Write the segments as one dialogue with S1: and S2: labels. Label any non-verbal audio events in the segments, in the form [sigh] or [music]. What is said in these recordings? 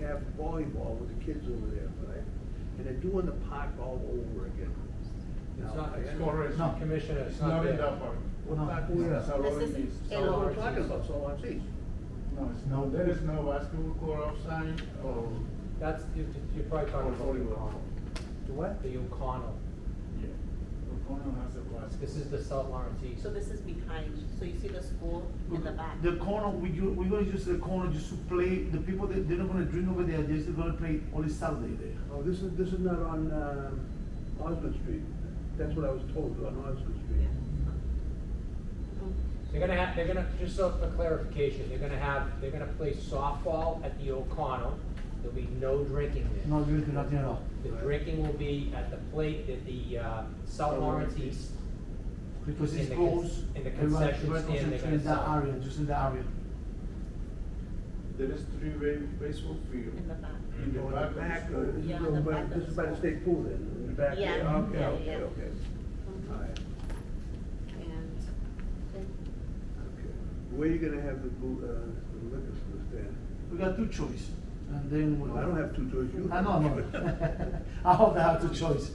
S1: have volleyball with the kids over there, but I, and they're doing the park all over again.
S2: It's
S1: Now,
S2: not,
S1: I-
S2: it's corporation commissioner, it's not there.
S3: in that part.
S4: Well, no,
S3: That
S4: yeah.
S3: is allowed
S5: This is
S3: in the
S1: That's what
S5: in
S3: South
S1: we're
S3: Orange.
S5: Lawrence.
S1: talking about, so I'm saying.
S3: No, it's no, there is no basketball court outside or.
S2: That's, you- you're probably talking about the
S3: Volleyball.
S2: O'Connell,
S4: The what?
S2: the O'Connell.
S3: Yeah. O'Connell has a basketball.
S2: This is the South Lawrence East.
S5: So this is behind, so you see the school in the back?
S4: The corner, we, u- we're gonna use the corner just to play, the people, that they're not gonna drink over there, they're just gonna play only Saturday there.
S1: Oh, this is, this is not on, um, Osmond Street. That's what I was told, on Osmond Street.
S5: Yeah.
S2: They're gonna have, they're gonna, just so for clarification, they're gonna have, they're gonna play softball at the O'Connell. There'll be no drinking there.
S4: No drinking, nothing at all.
S2: The drinking will be at the plate, at the, uh, South Lawrence East.
S4: Because
S2: In
S4: it's
S2: the
S4: close.
S2: con- in the
S4: everyone-
S2: concession
S4: everyone
S2: stand, they're
S4: concentrate
S2: gonna
S4: in that
S2: sell.
S4: area, just in that area.
S3: There is three-way baseball field.
S5: In the back.
S3: In the
S1: Oh, in
S3: back of the
S1: uh,
S3: school.
S1: This is
S5: Yeah,
S1: over
S5: the
S1: by,
S5: back of
S1: this
S5: the
S1: is by the
S5: school.
S1: state pool then, in the back there.
S5: Yeah,
S1: Okay,
S5: yeah,
S1: okay,
S5: yeah.
S1: okay. All
S5: Mhm.
S1: right,
S5: And then
S1: okay. Where are you gonna have the boo, uh, the liquor store stand?
S4: We got two choice, and then we.
S1: I don't have two doors, you.
S4: I know, I know. [laughs] I hope they have two choice.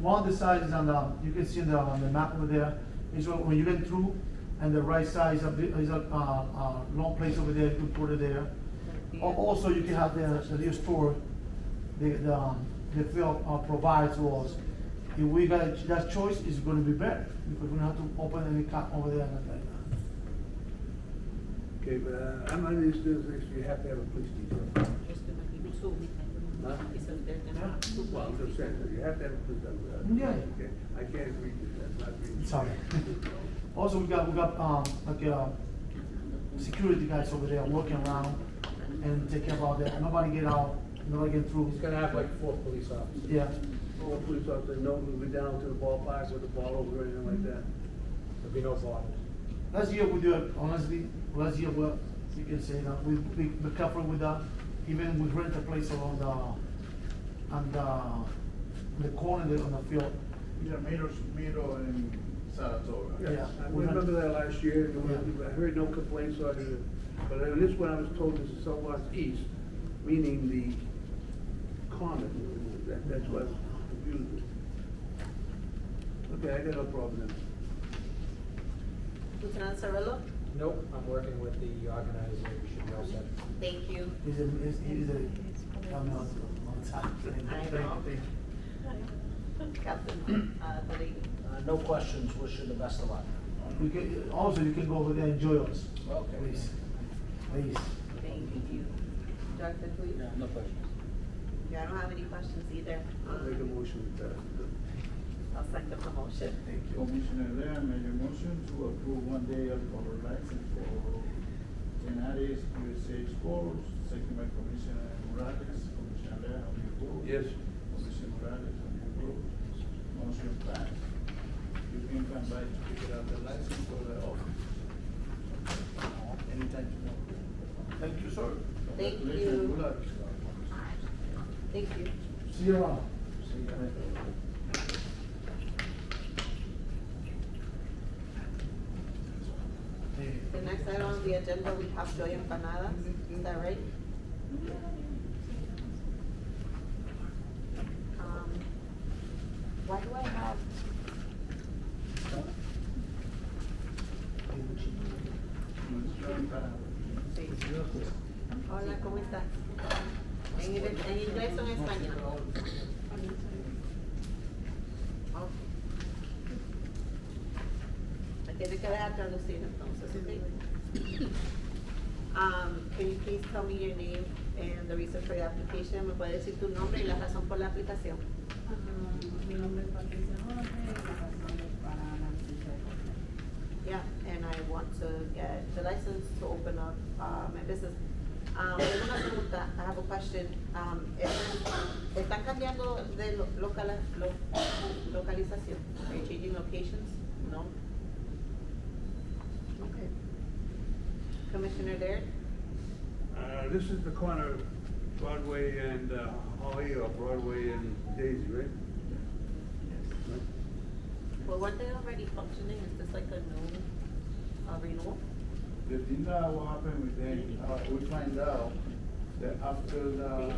S4: One of the sides is on the, you can see on the, on the map over there, is where- when you went through, and the right side is a bit, is a, uh, uh, long place over there, you can put it there.
S5: the-
S4: Al- Oh, Also, you can have the, the new store, the, the, um, the field uh, provides to us. If we got, that choice is gonna be better, because we don't have to open any cap over there and like that.
S1: [laughs] Okay, but, uh, I'm under this, this, you have to have a police detail.
S5: there's gonna be two.
S1: Huh?
S5: He said there's gonna
S4: Yeah.
S5: be two.
S1: Well, I'm just saying, that you have to have a police detail.
S4: Yeah.
S1: Okay, I can't agree to that, not agree.
S4: Sorry.
S1: [laughs]
S4: Also, we got, we got, um, like, uh, security guys over there walking around and take care about that, nobody get out, nobody get through.
S2: He's gonna have like four police officers.
S4: Yeah,
S1: Or a police officer, no, we'll be down to the ballpark with the ball over or anything like that.
S2: There'll be no bottles.
S4: last year we do it, honestly, last year, well, you can say that, we, we, we covered with that, even we rent a place along the, on uh, the, the corner there on the field.
S3: Yeah, Miro, Miro and Saratoga.
S1: Yeah,
S4: Yeah.
S1: I remember that last year, and when-
S4: Yeah.
S1: I heard no complaints on it, but on this one, I was told this is Southwest East, meaning the common, that, that's what confused Okay, I got no problem then.
S5: Lieutenant Cirillo,
S2: Nope, I'm working with the organizer, we should be all set.
S5: thank you.
S4: Is it, is, is it, I'm not, on time.
S5: I know. Captain, uh, the lady.
S6: Uh, No questions, wish you the best of luck.
S4: You can, also, you can go over there and enjoy us,
S6: Okay.
S4: please, please.
S5: Thank you. Dr. Cleve?
S6: Yeah, no questions.
S5: Yeah, I don't have any questions either. Um,
S1: I'll make a motion with that.
S5: I'll second the motion.
S1: Thank
S3: Commissioner Lea made a motion to approve one day alcohol license for Tenaris USA Sports, second by Commissioner Morales. Commissioner Lea, how do you vote?
S1: Yes.
S3: Commissioner Morales, how do you vote? Motion passed. You can come back to pick up the license for the office. Anytime you want.
S4: Thank you, sir.
S5: Thank
S3: Congratulations,
S5: you.
S3: Good luck.
S5: Thank you.
S4: See you around.
S3: See you later.
S5: The next item on the agenda, we have Joy Empanadas, is that right? Um, Why do I have? Sí. Hola, ¿cómo estás? En, inglés- en inglés o en español? Ok. Me tiene que dejar traducir entonces, ¿ok? Um, can you please tell me your name and the reason for your application? ¿Me puedes decir tu nombre y la razón por la aplicación?
S7: Ah, Mi nombre es Patricia Jorge, la razón es para la licencia de comer.
S5: Yeah, and I want to get the license to open up, uh, my business. Um, tengo una pregunta, I have a question, um, ¿están- ¿están cambiando de lo- locala, lo- localización? Are you changing locations? No? Okay. Commissioner Laird?
S1: Uh, this is the corner of Broadway and uh, Holly, or Broadway and Daisy, right?
S5: Well, weren't they already functioning, is this like a new, uh, renewal?
S3: The thing that will happen with them, uh, we find out that after the